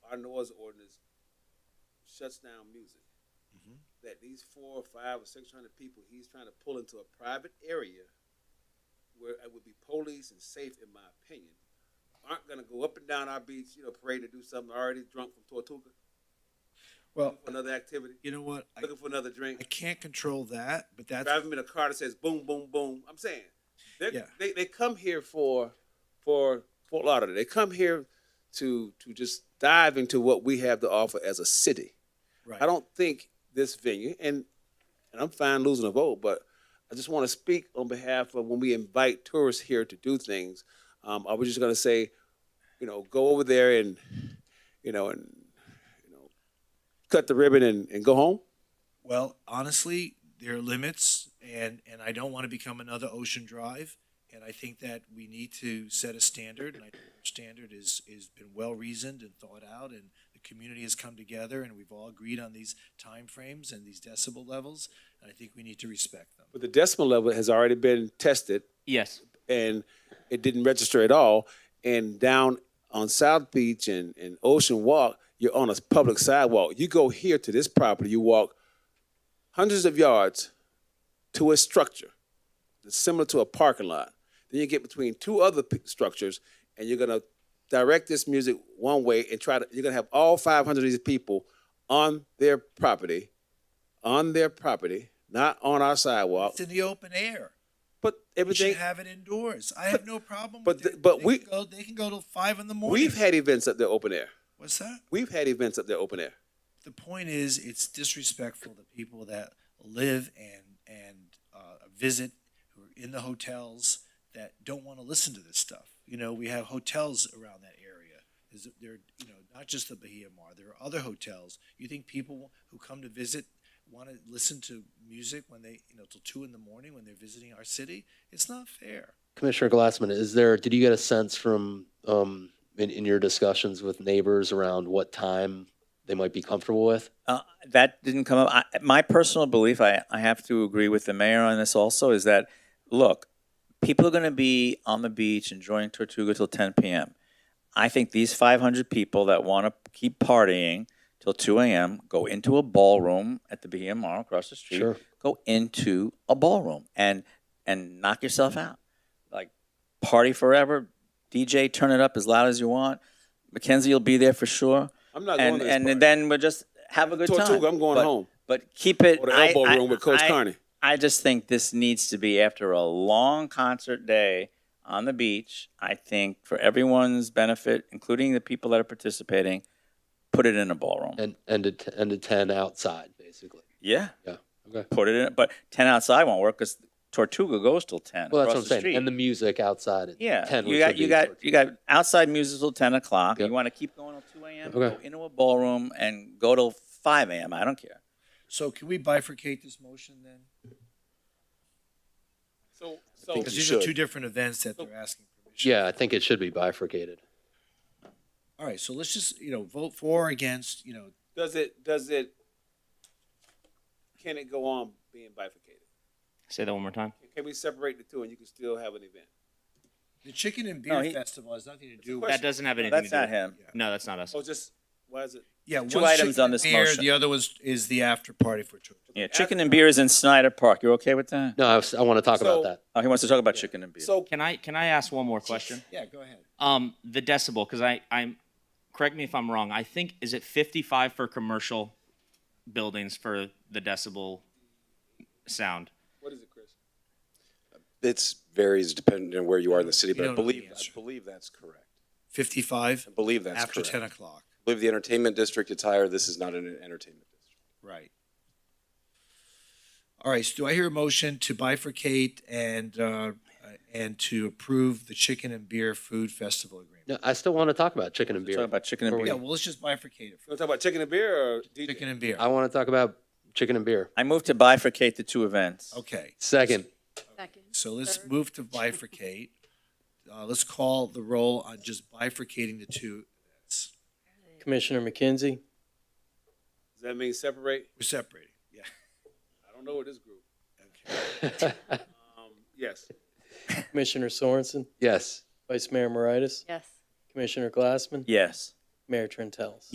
our noise ordinance shuts down music. Mhm. That these four or five or six hundred people he's trying to pull into a private area where it would be police and safe, in my opinion, aren't gonna go up and down our beach, you know, parade to do something already drunk from Tortuga, Well, for another activity, you know what? I, looking for another I drink, can't control that, but that's driving in a car that says boom, boom, boom. I'm saying, they're- Yeah. they they come here for for Fort Lauderdale. They come here to to just dive into what we have to offer as a city. right. I don't think this venue, and and I'm fine losing a vote, but I just want to speak on behalf of when we invite tourists here to do things. Um, I was just gonna say, you know, go over there and, you know, and you know, cut the ribbon and, and go home. Well, honestly, there are limits, and and I don't want to become another Ocean Drive. And I think that we need to set a standard, and I think our standard is is been well reasoned and thought out, and the community has come together, and we've all agreed on these timeframes and these decibel levels. And I think we need to respect them. But the decimal level has already been tested Yes. and it didn't register at all. And down on South Beach and, and Ocean Walk, you're on a public sidewalk. You go here to this property, you walk hundreds of yards to a structure that's similar to a parking lot. Then you get between two other p- structures, and you're gonna direct this music one way and try to. You're gonna have all 500 of these people on their property, on their property, not on our sidewalk. It's in the open air. But We should everything have it indoors. I have no problem. but with the- it. but They we- can go, they can go till five in the morning. we've had events up there open air. what's that? We've had events up there open air. the point is it's disrespectful to people that live and and uh, visit who are in the hotels that don't want to listen to this stuff you know we have hotels around that area There's, there you know not just the bahia mar there are other hotels you think people who come to visit want to listen to music when they you know till two in the morning when they're visiting our city it's not fair Commissioner Glassman, is there, did you get a sense from, um, in, in your discussions with neighbors around what time they might be comfortable with? Uh, that didn't come up. I, my personal belief, I, I have to agree with the mayor on this also, is that, look, people are going to be on the beach enjoying Tortuga till 10 p.m. I think these 500 people that want to keep partying till 2 a.m. go into a ballroom at the BMR across the street. Sure. Go into a ballroom and and knock yourself out. Like party forever. DJ, turn it up as loud as you want. Mackenzie, you'll be there for sure. I'm not going and to this and party. then we'll just have a good Tortuga, time. I'm going But- home. But keep it. Or the I- elbow I- room with Coach I- Carney. I just think this needs to be after a long concert day on the beach. I think for everyone's benefit, including the people that are participating, put it in a ballroom. And, and a, t- and a ten outside, basically? yeah, Yeah, okay. put it in. But ten outside won't work because Tortuga goes till ten. Well, that's across what I'm the saying, and the street. music outside at yeah, ten. you which got would you be got towards- you got outside music till ten o'clock. Yep. You want to keep going till two a.m. Okay. Go into a ballroom and go till five a.m. I don't care. so can we bifurcate this motion then So, I think so because you these are should. two different events that they're asking permission Yeah, I think it should be bifurcated. all right so let's just you know vote for or against you know does it, does it, can it go on being bifurcated? Say that one more time. Can we separate the two and you can still have an event? The chicken and beer No, he- festival has nothing to do question. with. That doesn't have anything That's to do not with him. No, that's not us. Oh, just, why is it? Yeah, Two one's items chicken on and this beer, motion. The other was is the after party for children. Yeah, chicken and beer is in Snyder Park. You okay with that? No, I, was- I want to talk So- about that. Oh, he wants to talk about chicken and beer. So, Can I can I ask one more question? Yeah, go ahead. Um, the decibel, because I I'm correct me if I'm wrong. I think is it 55 for commercial buildings for the decibel sound. what is it, Chris? It's varies depending on where you are in the city, but I don't know the believe, I answer. believe that's correct. Fifty-five I believe that's after correct. ten o'clock. I believe the entertainment district is higher. This is not an entertainment district. Right. All right. So do I hear a motion to bifurcate and uh, and to approve the chicken and beer food festival agreement? No, I still want to talk about chicken and Talk beer. about chicken and Or we- beer. Yeah. Well, let's just bifurcate You it. want to talk about chicken and beer or DJ? Chicken and beer. I want to talk about chicken and beer. I move to bifurcate the two events. Okay. Second, Second. So let's Third. move to bifurcate. Uh, let's call the roll on just bifurcating the two events. Commissioner McKenzie? Does that mean separate? We're separating. Yeah. I don't know with this group. Um, yes. Commissioner Sorensen, Yes. Vice Mayor Moritas, Yes. Commissioner Glassman, Yes. Mayor Trentalis.